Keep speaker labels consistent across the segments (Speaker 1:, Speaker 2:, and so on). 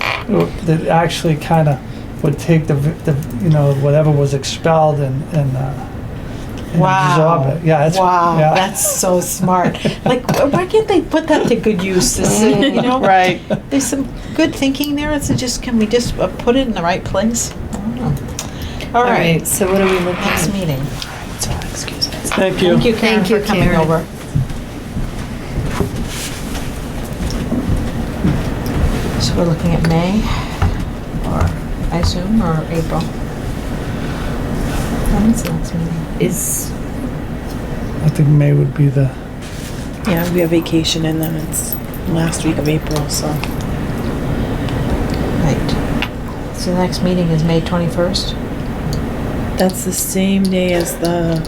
Speaker 1: that actually kind of would take the, the, you know, whatever was expelled and, and, uh, and
Speaker 2: Wow.
Speaker 1: absorb it. Yeah, it's,
Speaker 2: wow,
Speaker 1: yeah.
Speaker 2: that's so smart. like, wh- why can't they put that to good use? This, is, you know,
Speaker 3: Right.
Speaker 2: There's some good thinking there. It's just, can we just uh, put it in the right place? I don't know. All
Speaker 3: All
Speaker 2: right.
Speaker 3: right, so what are we looking
Speaker 2: Next
Speaker 3: at?
Speaker 2: meeting.
Speaker 1: Thank
Speaker 2: Thank you, Karen,
Speaker 3: Thank you,
Speaker 2: for coming
Speaker 3: Karen.
Speaker 2: over. So we're looking at May, or I assume, or April. When is the next meeting?
Speaker 3: Is,
Speaker 1: I think May would be the,
Speaker 4: Yeah, we have vacation and then it's last week of April, so.
Speaker 2: Right. So the next meeting is May 21st?
Speaker 4: That's the same day as the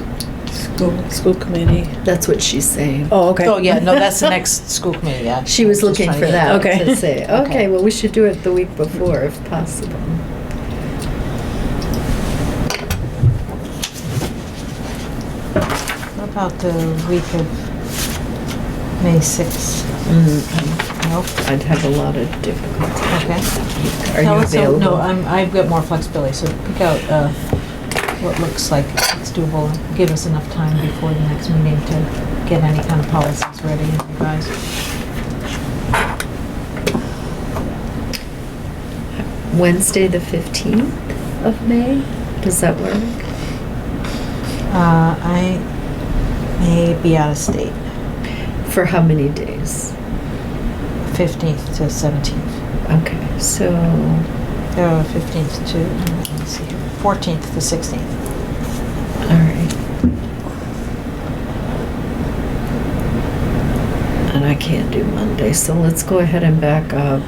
Speaker 4: school, school committee.
Speaker 3: that's what she's saying.
Speaker 4: Oh, okay.
Speaker 2: Oh, yeah, no, that's the next school committee, yeah.
Speaker 3: She was
Speaker 2: Just
Speaker 3: looking
Speaker 2: trying
Speaker 3: for
Speaker 2: to get-
Speaker 3: that
Speaker 4: Okay.
Speaker 3: to say, okay, well, we should do it the week before if possible.
Speaker 2: What about the week of May 6th? Nope,
Speaker 3: I'd have a lot of difficulty.
Speaker 2: Mm-hmm. okay.
Speaker 3: Are
Speaker 2: Tell
Speaker 3: you
Speaker 2: us, so- No, uh, I'm,
Speaker 3: available?
Speaker 2: I've got more flexibility, so pick out, uh, what looks like it's doable. Give us enough time before the next meeting to get any kind of policies ready and revised.
Speaker 3: Wednesday, the 15th of May? Does that work?
Speaker 2: Uh, I may be out of state,
Speaker 3: For how many days?
Speaker 2: fifteenth to seventeenth,
Speaker 3: Okay, so
Speaker 2: uh, fifteenth to, let's see, fourteenth to sixteenth.
Speaker 3: all right. And I can't do Monday, so let's go ahead and back up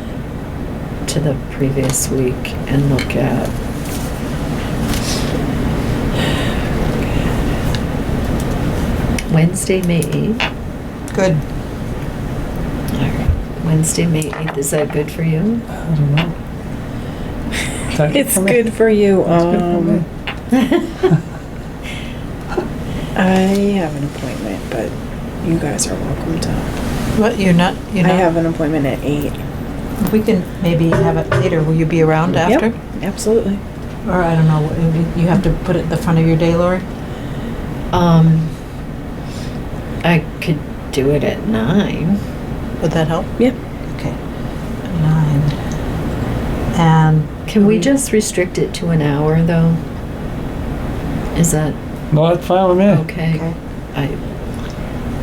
Speaker 3: to the previous week and look at. Wednesday, May 8th.
Speaker 2: Good.
Speaker 3: All right. Wednesday, May 8th. Is that good for you?
Speaker 1: I don't know. That-
Speaker 4: It's good for you,
Speaker 1: It's good for me.
Speaker 4: um, I have an appointment, but you guys are welcome to.
Speaker 2: What, you're not,
Speaker 4: I
Speaker 2: you're not?
Speaker 4: have an appointment at eight.
Speaker 2: We can maybe have it later. Will you be around
Speaker 4: Yep,
Speaker 2: after?
Speaker 4: Absolutely.
Speaker 2: Or I don't know, you- you have to put it in the front of your day, Lori?
Speaker 3: Um, I could do it at 9.
Speaker 2: Would that help?
Speaker 4: Yep.
Speaker 2: Okay. Nine. And.
Speaker 3: Can we just restrict it to an hour, though? Is that
Speaker 1: No, that's fine with me.
Speaker 3: okay?
Speaker 2: Okay.
Speaker 3: I,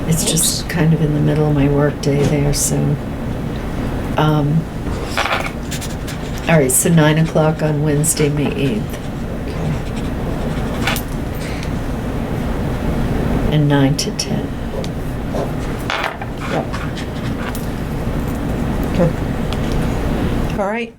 Speaker 3: it's just kind of in the middle of my workday there, so. Um, all right, so nine o'clock on Wednesday, May eighth, and nine to ten.
Speaker 2: Yep. Good. All right.